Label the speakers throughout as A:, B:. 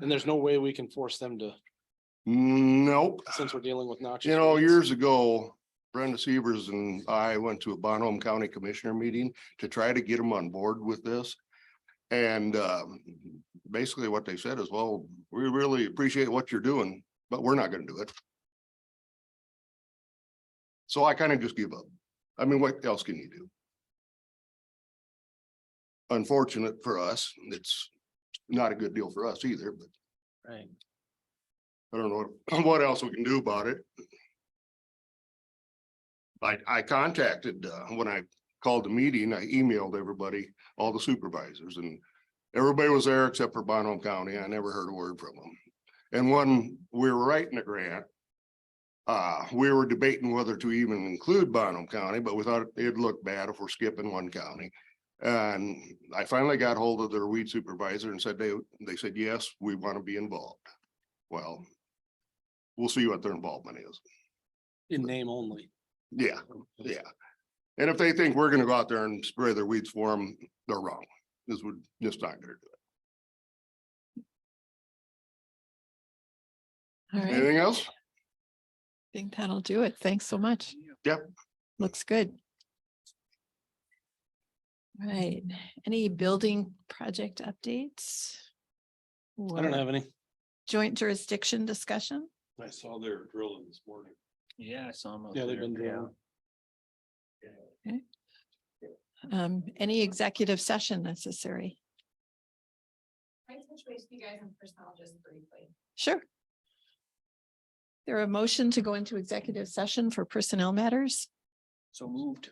A: And there's no way we can force them to,
B: Nope.
A: since we're dealing with noxious.
B: You know,
A: weeds.
B: years ago, Brenda Severs and I went to a Bonhomme County Commissioner meeting to try to get them on board with this. And um, basically what they said is, well, we really appreciate what you're doing, but we're not gonna do it. So I kind of just give up. I mean, what else can you do? Unfortunate for us, it's not a good deal for us either, but
A: Right.
B: I don't know what- what else we can do about it. I, I contacted, uh, when I called the meeting, I emailed everybody, all the supervisors and everybody was there except for Bonham County. I never heard a word from them. And when we were writing the grant, uh, we were debating whether to even include Bonham County, but we thought it'd look bad if we're skipping one county. And I finally got hold of their weed supervisor and said, they, they said, yes, we want to be involved. Well, we'll see what their involvement is.
A: In name only.
B: Yeah, yeah. And if they think we're gonna go out there and spray their weeds for them, they're wrong. This would just not gonna do
C: All
B: it.
C: right, I
B: Anything else?
C: think that'll do it. Thanks so much.
B: Yep.
C: Looks good. Right, any building project updates?
A: I don't
C: Or
A: have any.
C: Joint jurisdiction discussion?
D: I saw they were drilling this morning. Yeah, I saw them.
A: Yeah, they've been drilling.
C: Um, any executive session necessary?
E: I touch base with you guys in personnel just briefly.
C: Sure. There a motion to go into executive session for personnel matters?
D: So moved.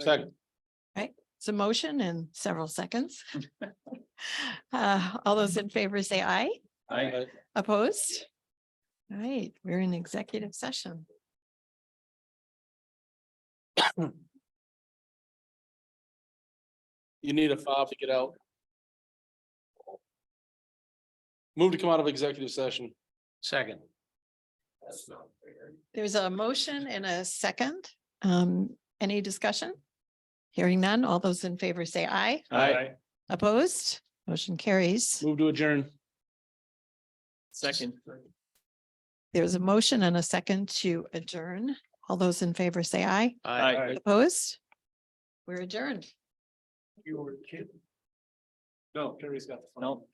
A: Second,
C: It's a motion in several seconds. Uh, all those in favor say aye.
D: I,
A: I-
C: Opposed? All right, we're in executive session.
A: you need a fob to get out. Move to come out of executive session. Second.
C: There's a motion and a second. Um, any discussion? Hearing none, all those in favor say aye.
A: Aye.
C: Opposed? Motion carries.
A: Move to adjourn.
D: Second.
C: There's a motion and a second to adjourn. All those in favor say aye.
D: Aye.
C: Opposed? We're adjourned.
D: You were kidding. No, Terry's got the. No.